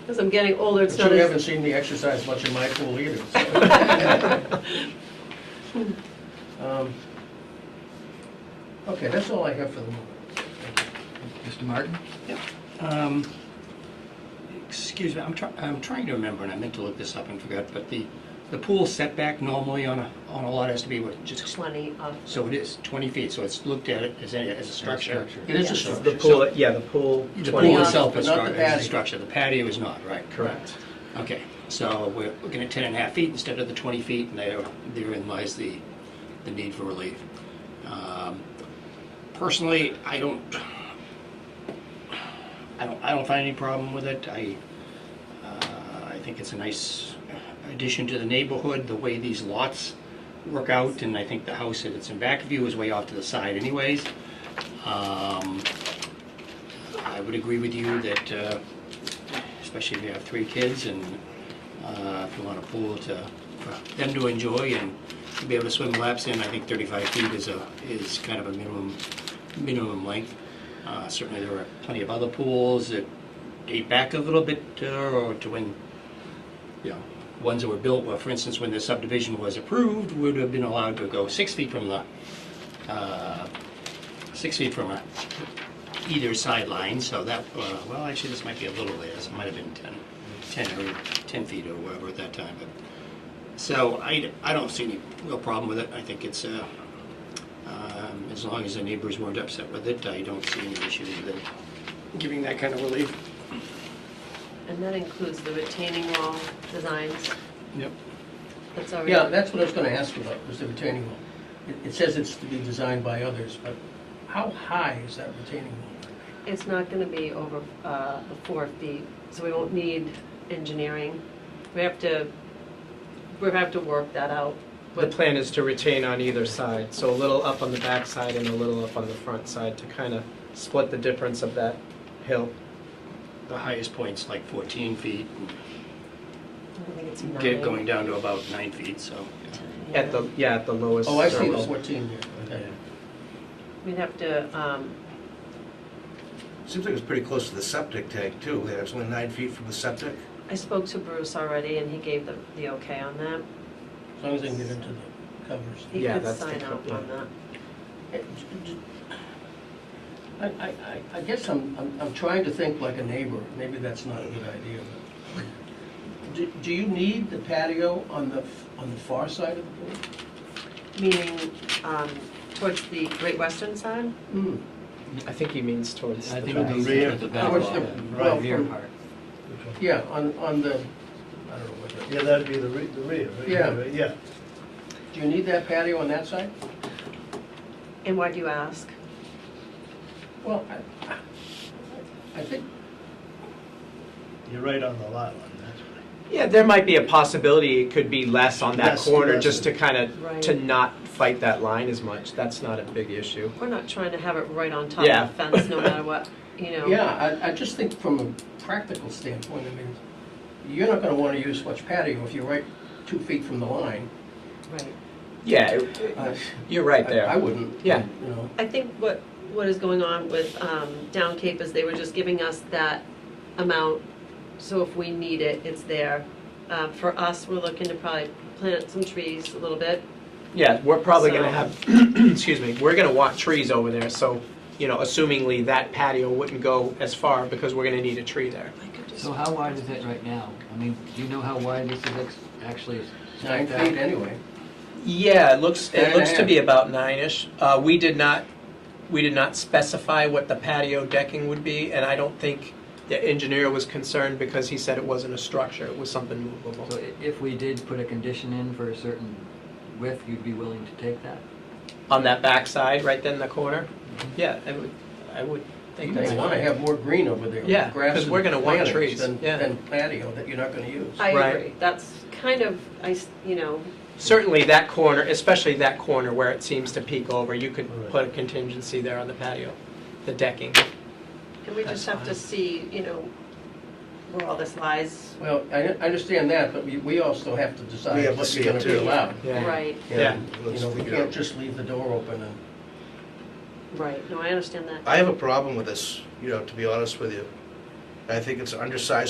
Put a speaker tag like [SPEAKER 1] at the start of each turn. [SPEAKER 1] Because I'm getting older, it's
[SPEAKER 2] But
[SPEAKER 1] not
[SPEAKER 2] you haven't
[SPEAKER 1] as,
[SPEAKER 2] seen me exercise much in my pool either, so. Um, Okay, that's all I have for the moment.
[SPEAKER 3] Mr. Martin?
[SPEAKER 4] Um, Excuse me, I'm trying, I'm trying to remember, and I meant to look this up and forgot, but the, the pool setback normally on a, on a lot has to be what, just,
[SPEAKER 1] 20 off.
[SPEAKER 4] so it is 20 feet, so it's looked at it as a, as a structure.
[SPEAKER 3] structure.
[SPEAKER 4] It is a
[SPEAKER 1] Yes.
[SPEAKER 4] structure.
[SPEAKER 5] The pool, yeah, the pool,
[SPEAKER 4] so The
[SPEAKER 5] 20
[SPEAKER 4] pool
[SPEAKER 1] off,
[SPEAKER 4] itself
[SPEAKER 2] but
[SPEAKER 4] is
[SPEAKER 2] not the
[SPEAKER 4] stru- is a
[SPEAKER 2] patio.
[SPEAKER 4] structure, the patio is not, right?
[SPEAKER 5] correct.
[SPEAKER 4] Okay, so we're looking at 10 and a half feet instead of the 20 feet, and there- therein lies the, the need for relief. Um, Personally, I don't, I don't, I don't find any problem with it. I, uh, I think it's a nice addition to the neighborhood, the way these lots work out, and I think the house that it's in back of you is way off to the side anyways. Um, I would agree with you that, uh, especially if you have three kids and uh, if you want a pool to, for them to enjoy and to be able to swim laps in, I think 35 feet is a, is kind of a minimum, minimum length. Uh, Certainly, there are plenty of other pools that date back a little bit uh, or to when, you know, ones that were built, well, for instance, when the subdivision was approved, would have been allowed to go six feet from the, uh, six feet from a either sideline, so that, uh, well, actually, this might be a little later, so it might have been 10, 10 or 10 feet or whatever at that time, but, so I, I don't see any real problem with it, I think it's, uh, um, as long as the neighbors weren't upset with it, I don't see any issue with it, giving that kind of relief.
[SPEAKER 1] And that includes the retaining wall designs.
[SPEAKER 4] Yep.
[SPEAKER 1] That's already.
[SPEAKER 2] Yeah, that's what I was gonna ask you about, was the retaining wall. It- It says it's to be designed by others, but how high is that retaining wall?
[SPEAKER 1] It's not going to be over uh, the four feet, so we won't need engineering. We have to, we have to work that out.
[SPEAKER 5] The plan is to retain on either side, so a little up on the back side and a little up on the front side to kind of split the difference of that hill.
[SPEAKER 4] The highest point's like 14 feet,
[SPEAKER 1] I think it's
[SPEAKER 4] and
[SPEAKER 1] nine.
[SPEAKER 4] get going down to about nine feet, so.
[SPEAKER 1] Yeah.
[SPEAKER 5] At the, yeah, at the lowest.
[SPEAKER 2] Oh, I see the
[SPEAKER 5] lowest.
[SPEAKER 2] 14 there, okay.
[SPEAKER 1] We'd have to, um,
[SPEAKER 6] Seems like it's pretty close to the septic tank too. Yeah, It's only nine feet from the septic.
[SPEAKER 1] I spoke to Bruce already, and he gave the, the okay on that.
[SPEAKER 2] As long as they can get into the covers.
[SPEAKER 1] He
[SPEAKER 5] Yeah,
[SPEAKER 1] could
[SPEAKER 5] that's the
[SPEAKER 1] sign
[SPEAKER 5] co-
[SPEAKER 1] off
[SPEAKER 5] yeah.
[SPEAKER 1] on that.
[SPEAKER 2] I, I, I- I guess I'm, I'm, I'm trying to think like a neighbor, maybe that's not a good idea. but- Do, do you need the patio on the, f- on the far side of the pool?
[SPEAKER 1] Meaning, um, towards the Great Western side?
[SPEAKER 2] Hmm,
[SPEAKER 5] I think he means towards the
[SPEAKER 3] I
[SPEAKER 5] back.
[SPEAKER 3] think the rear, the back
[SPEAKER 2] Towards the-
[SPEAKER 3] wall,
[SPEAKER 2] well,
[SPEAKER 3] right rear
[SPEAKER 2] from-
[SPEAKER 3] part.
[SPEAKER 2] yeah, on, on the, I don't know what that,
[SPEAKER 7] Yeah, that'd be the re- the rear, right?
[SPEAKER 2] Yeah.
[SPEAKER 7] Right, Yeah.
[SPEAKER 2] do you need that patio on that side?
[SPEAKER 1] And why do you ask?
[SPEAKER 2] Well, I, I think,
[SPEAKER 7] You're right on the lot line, that's right.
[SPEAKER 5] Yeah, there might be a possibility it could be less on that
[SPEAKER 7] Less,
[SPEAKER 5] corner,
[SPEAKER 7] less.
[SPEAKER 5] just to kind
[SPEAKER 1] Right.
[SPEAKER 5] of, to not fight that line as much. That's not a big issue.
[SPEAKER 1] We're not trying to have it right on top
[SPEAKER 5] Yeah.
[SPEAKER 1] of the fence, no matter what, you know?
[SPEAKER 2] yeah, I, I just think from a practical standpoint, I mean, you're not gonna wanna use much patio if you're right two feet from the line.
[SPEAKER 1] Right.
[SPEAKER 5] Yeah, it- it-
[SPEAKER 2] I-
[SPEAKER 5] you're right
[SPEAKER 2] I-
[SPEAKER 5] there.
[SPEAKER 2] I wouldn't.
[SPEAKER 5] Yeah.
[SPEAKER 2] You know,
[SPEAKER 1] I think what, what is going on with um, Down Cape is they were just giving us that amount, so if we need it, it's there. Uh, For us, we're looking to probably plant some trees a little bit.
[SPEAKER 5] Yeah, we're probably
[SPEAKER 1] So-
[SPEAKER 5] gonna have, excuse me, we're gonna want trees over there, so, you know, assumingly that patio wouldn't go as far because we're gonna need a tree there.
[SPEAKER 3] So how wide is it right now? I mean, do you know how wide this is ex- actually?
[SPEAKER 2] Nine feet anyway.
[SPEAKER 5] Yeah, it looks,
[SPEAKER 2] Nine and
[SPEAKER 5] it
[SPEAKER 2] a
[SPEAKER 5] looks to
[SPEAKER 2] half.
[SPEAKER 5] be about nine-ish. Uh, we did not, we did not specify what the patio decking would be, and I don't think the engineer was concerned because he said it wasn't a structure, it was something movable.
[SPEAKER 3] So i- if we did put a condition in for a certain width, you'd be willing to take that?
[SPEAKER 5] On that backside, right then in the corner? Yeah, I would, I would
[SPEAKER 2] Mm-hmm. You
[SPEAKER 5] think that's
[SPEAKER 2] may want to
[SPEAKER 5] fine.
[SPEAKER 2] have more green over there.
[SPEAKER 5] Yeah,
[SPEAKER 2] grass
[SPEAKER 5] 'cause
[SPEAKER 2] and
[SPEAKER 5] we're gonna want
[SPEAKER 2] plantings
[SPEAKER 5] trees,
[SPEAKER 2] than-
[SPEAKER 5] yeah.
[SPEAKER 2] Than patio that you're not going to use.
[SPEAKER 1] I
[SPEAKER 5] Right.
[SPEAKER 1] agree, that's kind of, I, s- you know,
[SPEAKER 5] Certainly that corner, especially that corner where it seems to peek over, you could
[SPEAKER 7] Right.
[SPEAKER 5] put a contingency there on the patio, the decking.
[SPEAKER 1] and we just have to see, you know, where all this lies,
[SPEAKER 2] Well, I I understand that, but we we also have to
[SPEAKER 7] We
[SPEAKER 2] decide
[SPEAKER 7] have
[SPEAKER 2] what's
[SPEAKER 7] to see
[SPEAKER 2] going
[SPEAKER 7] it
[SPEAKER 2] to be
[SPEAKER 7] too.
[SPEAKER 2] allowed.
[SPEAKER 5] Yeah.
[SPEAKER 1] right?
[SPEAKER 5] Yeah.
[SPEAKER 2] And, You know, we can't just leave the door open and,
[SPEAKER 1] Right, no, I understand that.
[SPEAKER 6] I have a problem with this, you know, to be honest with you. I think it's an undersized